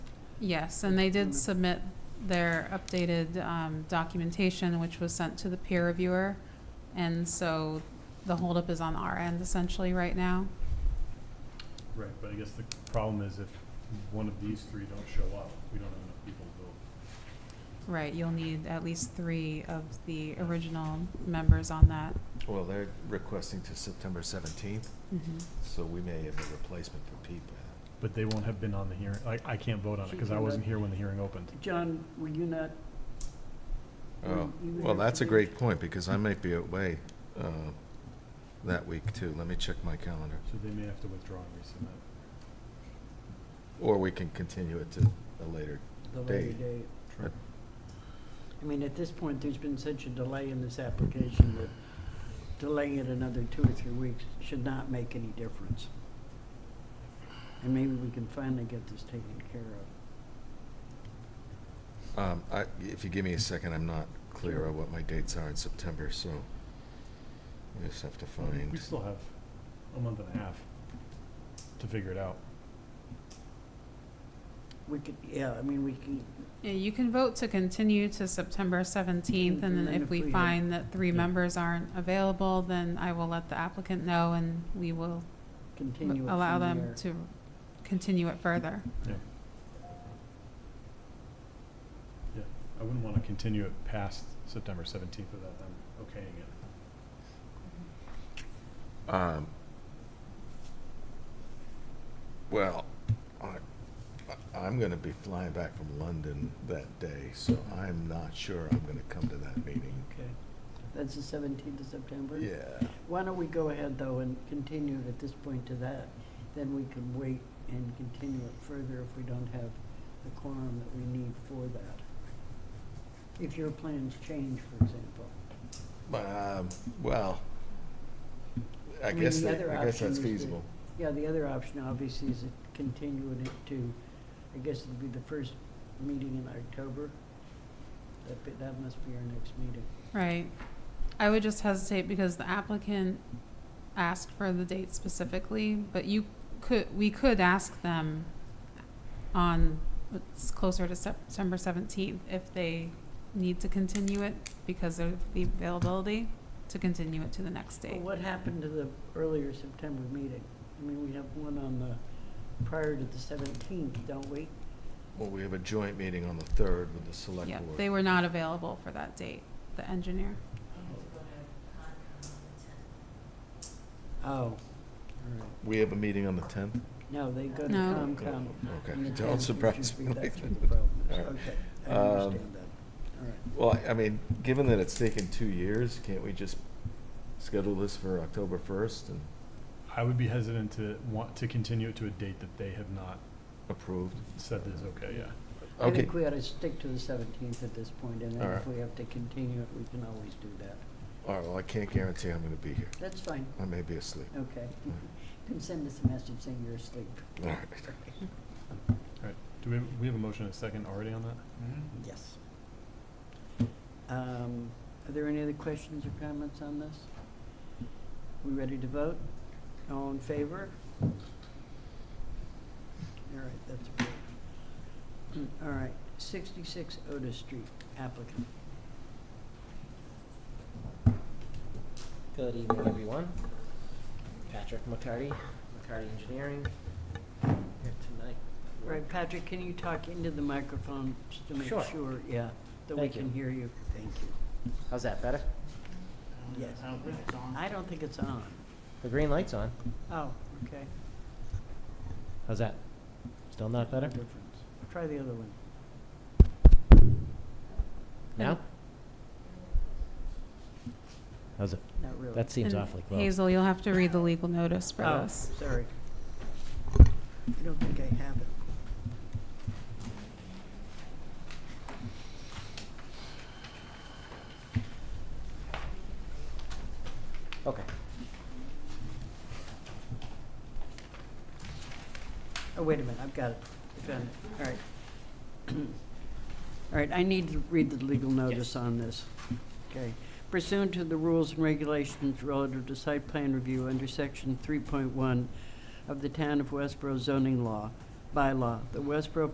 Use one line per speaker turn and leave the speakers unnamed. Yes, and they did submit their updated um, documentation, which was sent to the peer reviewer. And so the holdup is on our end essentially right now.
Right, but I guess the problem is if one of these three don't show up, we don't have enough people to vote.
Right, you'll need at least three of the original members on that.
Well, they're requesting to September seventeenth, so we may have a replacement for Pete. by then.
But they won't have been on the hearing, I, I can't vote on it, because I wasn't here when the hearing opened.
John, were you not? were
Oh,
you
well,
there
that's a
today?
great point, because I might be away, uh, that week too. Let me check my calendar.
So they may have to withdraw and resubmit.
Or we can continue it to a later.
The later
day.
date.
Sure.
I mean, at this point, there's been such a delay in this application that delaying it another two or three weeks should not make any difference. And maybe we can finally get this taken care of.
Um, I, if you give me a second, I'm not clear on what my dates are in September, so I just have to
We
find.
still have a month and a half to figure it out.
We could, yeah, I mean, we can,
Yeah, you can vote to continue to September seventeenth, and then if we find that three
Yeah.
members aren't available, then I will let the applicant know and we will
continue it
allow
from
them
there.
to continue it further.
I wouldn't want to continue it past September seventeenth without them okaying it.
Um, well, I, I'm gonna be flying back from London that day, so I'm not sure I'm gonna come to that meeting.
Okay. That's the seventeenth of September?
Yeah.
Why don't we go ahead, though, and continue it at this point to that? Then we can wait and continue it further if we don't have the quorum that we need for that. If your plans change, for example.
Um, well, I
I mean,
guess,
the
that-
other
I guess
option
that's
is to-
feasible.
Yeah, the other option, obviously, is continuing it to, I guess it'd be the first meeting in October. That, be- that must be our next meeting.
Right. I would just hesitate because the applicant asked for the date specifically, but you could, we could ask them on, it's closer to September seventeenth, if they need to continue it because of the availability, to continue it to the next
Well,
date.
What happened to the earlier September meeting? I mean, we have one on the, prior to the seventeenth, don't we?
Well, we have a joint meeting on the third with the select
Yeah,
board.
they were not available for that date, the engineer.
Oh, all right.
We have a meeting on the tenth?
No, they go to
No.
COMCOM.
Okay,
on the 10th,
don't
which
surprise
would be-
me like
That's
that.
what the problem is.
All right.
Okay, I
Um,
understand that. All right.
Well, I- I mean, given that it's taken two years, can't we just schedule this for October first and
I would be hesitant to want to continue it to a date that they have not
approved?
said is okay, yeah.
I
Okay,
think we ought to stick to the seventeenth at this point, and then
All
if we have to continue it, we can always do that.
all right, well, I can't guarantee I'm gonna be here.
That's fine,
I may be asleep.
okay.
Mm-hmm.
You can send us a message saying you're asleep.
All right.
Do we, we have a motion and a second already on that?
Yes. Um, Are there any other questions or comments on this? We ready to vote? All in favor? All right, that's approved. Hmm, All right, 66 Otis Street, applicant.
Good evening, everyone. Patrick McCarty, McCarty Engineering, here tonight.
Right, Patrick, can you talk into the microphone just to make
Sure.
sure, yeah, that we
Thank you.
can hear you? Thank you.
How's that, better?
Yes. I don't think it's on. I don't think it's on.
The green light's on.
Oh, okay.
How's that? Still not better?
Difference. Try the other one.
Now? How's it?
Not really.
That seems
And
awfully close.
Hazel, you'll have to read the legal notice for
Oh,
this.
Sorry. I don't think I have it.
Okay.
Oh, wait a minute, I've got it. Found it. All right. All right, I need to read the legal notice on this. Okay. Pursuant to the rules and regulations relative to site plan review under section three point one of the Town of Westboro zoning law, bylaw, the Westboro